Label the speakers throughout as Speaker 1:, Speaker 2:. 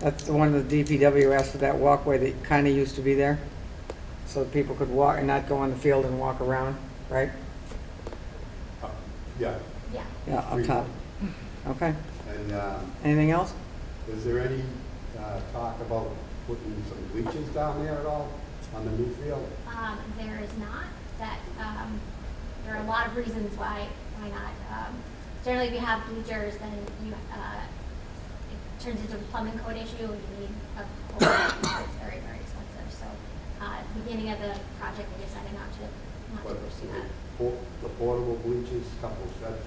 Speaker 1: That's the one the DPW asked for that walkway that kind of used to be there, so that people could walk and not go on the field and walk around, right?
Speaker 2: Uh, Yeah,
Speaker 3: Yeah.
Speaker 1: Yeah, up
Speaker 2: Three.
Speaker 1: top. Okay.
Speaker 2: and um,
Speaker 1: Anything else?
Speaker 2: is there any uh, talk about putting some bleachers down there at all on the new field?
Speaker 3: Um, there is not, that, um, there are a lot of reasons why, why not. Um, Generally, if you have bleachers, then you, uh, it turns into a plumbing code issue, and you need a whole lot of bleachers. it's very, very expensive. So, uh, at the beginning of the project, we decided not to, not
Speaker 2: But
Speaker 3: to pursue that.
Speaker 2: the por- the portable bleachers, couple sets,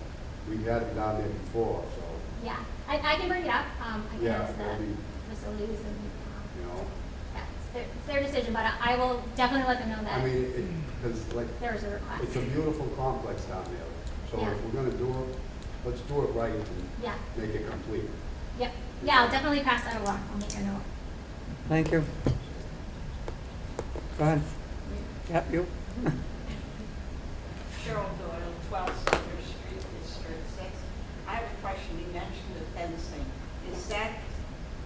Speaker 2: we've had them down there before, so,
Speaker 3: Yeah, I, I can bring it up, um, I can
Speaker 2: Yeah,
Speaker 3: ask
Speaker 2: that'd be-
Speaker 3: the facilities and,
Speaker 2: you
Speaker 3: um,
Speaker 2: know.
Speaker 3: yeah, it's their, it's their decision, but I I will definitely let them know
Speaker 2: I mean,
Speaker 3: that
Speaker 2: it, because like,
Speaker 3: there is a request.
Speaker 2: it's a beautiful complex down there. So
Speaker 3: Yeah.
Speaker 2: if we're gonna do it, let's do it right and
Speaker 3: Yeah,
Speaker 2: make it complete.
Speaker 3: yep, yeah, I'll definitely pass that along, I'll make a note.
Speaker 1: Thank you. Go ahead. Yep, you.
Speaker 4: Cheryl Doyle, 12 Center Street, District 6. I have a question, you mentioned the fencing. Is that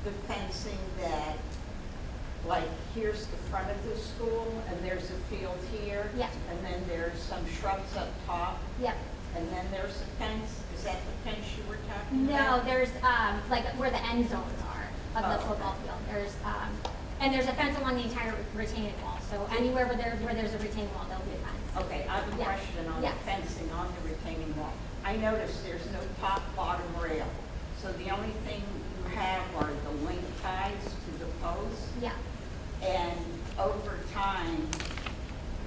Speaker 4: the fencing that, like, here's the front of the school, and there's a field here?
Speaker 3: Yeah.
Speaker 4: And then there's some shrubs up top,
Speaker 3: Yep,
Speaker 4: and then there's a fence? Is that the fence you were talking
Speaker 3: no,
Speaker 4: about?
Speaker 3: there's, um, like, where the end zones are of the
Speaker 4: Oh.
Speaker 3: football field, there's, um, and there's a fence along the entire retaining wall, so anywhere where there, where there's a retaining wall, there'll be a fence.
Speaker 4: Okay, I have a
Speaker 3: Yeah.
Speaker 4: question on the
Speaker 3: Yeah.
Speaker 4: fencing on the retaining wall. I noticed there's no top bottom rail, so the only thing you have are the link ties to the posts?
Speaker 3: Yeah,
Speaker 4: And over time,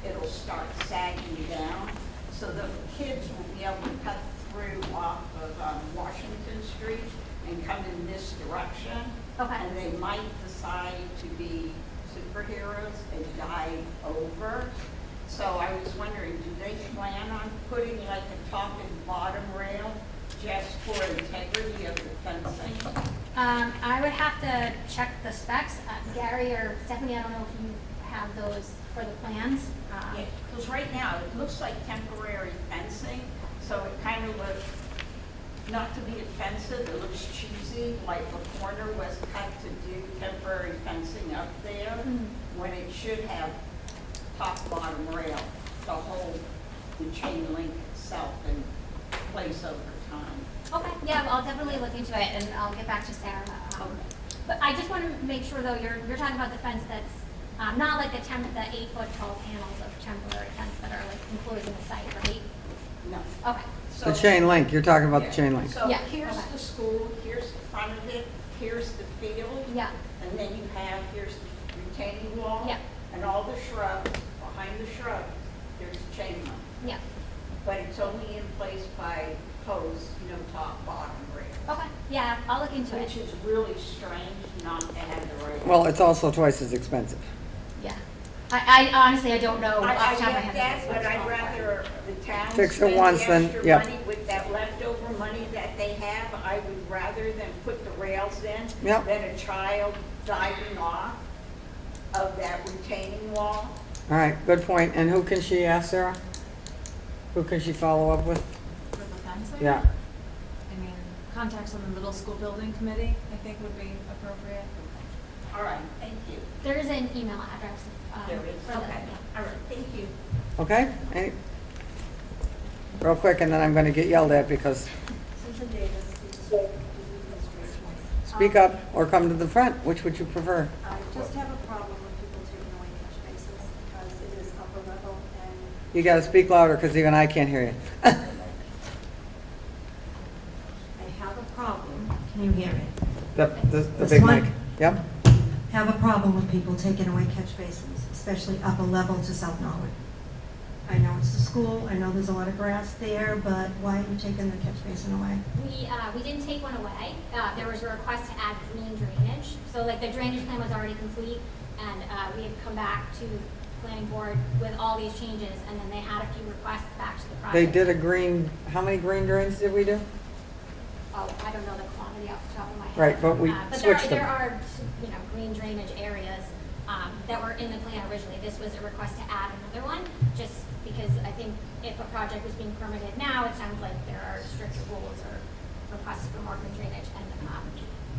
Speaker 4: it'll start sagging down. So the kids will be able to cut through off of um, Washington Street and come in this direction.
Speaker 3: Okay.
Speaker 4: And they might decide to be superheroes and dive over. So I was wondering, do they plan on putting like a top and bottom rail just for integrity of the fencing?
Speaker 3: um, I would have to check the specs, Uh, Gary or Stephanie, I don't know if you have those for the plans. Um,
Speaker 4: Because right now, it looks like temporary fencing, so it kind of looks, not to be offensive, it looks cheesy, like the corner was cut to do temporary fencing up there,
Speaker 3: Mm.
Speaker 4: when it should have top, bottom rail, the whole, the chain link itself in place over time.
Speaker 3: Okay, yeah, I'll definitely look into it and I'll get back to Sarah. um,
Speaker 4: Okay.
Speaker 3: But I just want to make sure though, you're, you're talking about the fence that's, um, not like the temp, the eight foot tall panels of temporary fence that are like enclosed in the site, right?
Speaker 4: No.
Speaker 3: Okay,
Speaker 1: The
Speaker 4: So-
Speaker 1: chain link, you're talking about the chain link.
Speaker 4: So
Speaker 3: Yeah,
Speaker 4: here's
Speaker 3: okay.
Speaker 4: the school, here's the front of it, here's the field.
Speaker 3: yeah,
Speaker 4: And then you have, here's the retaining wall.
Speaker 3: Yeah.
Speaker 4: And all the shrubs, behind the shrubs, there's a chain link.
Speaker 3: yeah,
Speaker 4: But it's only in place by posts, you know, top, bottom, rail.
Speaker 3: okay, yeah, I'll look into
Speaker 4: Which
Speaker 3: it,
Speaker 4: is really strange not to have the rail.
Speaker 1: Well, it's also twice as expensive.
Speaker 3: yeah. I, I honestly, Oh, I don't know
Speaker 4: I, I
Speaker 3: off the top of my head.
Speaker 4: get that, but
Speaker 3: what's
Speaker 4: I'd
Speaker 3: going on.
Speaker 4: rather the town
Speaker 1: Fix it
Speaker 4: spend the
Speaker 1: once than-
Speaker 4: extra
Speaker 1: yeah.
Speaker 4: money with that leftover money that they have. I would rather than put the rails in
Speaker 1: Yep.
Speaker 4: than a child diving off of that retaining wall.
Speaker 1: All right, good point. And who can she ask, Sarah? Who can she follow up with?
Speaker 5: For the fence area?
Speaker 1: Yeah,
Speaker 5: I mean, contacts on the middle school building committee, I think would be appropriate.
Speaker 4: All right, thank you.
Speaker 3: There is an email address, um,
Speaker 4: There is,
Speaker 3: for the,
Speaker 4: okay, all right, thank you.
Speaker 1: okay? Any- Real quick, and then I'm gonna get yelled at because
Speaker 6: Susan Davis, the administration.
Speaker 1: speak up or come to the front, which would you prefer?
Speaker 6: Um, I just have a problem with people taking away catch bases because it is upper level and
Speaker 1: You gotta speak louder because even I can't hear you.
Speaker 6: I have a problem. Can you hear me?
Speaker 1: The, the, the
Speaker 6: This
Speaker 1: big mic.
Speaker 6: one?
Speaker 1: Yep,
Speaker 6: Have a problem with people taking away catch basins, especially upper level to South Norwood. I know it's the school, I know there's a lot of grass there, but why are you taking the catch basin away?
Speaker 3: We, uh, we didn't take one away. Uh, there was a request to add green drainage. So like the drainage plan was already complete and, uh, we had come back to planning board with all these changes and then they had a few requests back to the project.
Speaker 1: they did a green, how many green drains did we do?
Speaker 3: Oh, I don't know the quantity off the top of my head.
Speaker 1: Right, but we
Speaker 3: Uh,
Speaker 1: switched
Speaker 3: But there
Speaker 1: them.
Speaker 3: are, there are, you know, green drainage areas, um, that were in the plan originally. This was a request to add another one, just because I think if a project was being permitted now, it sounds like there are stricter rules or requests for more green drainage. And, um,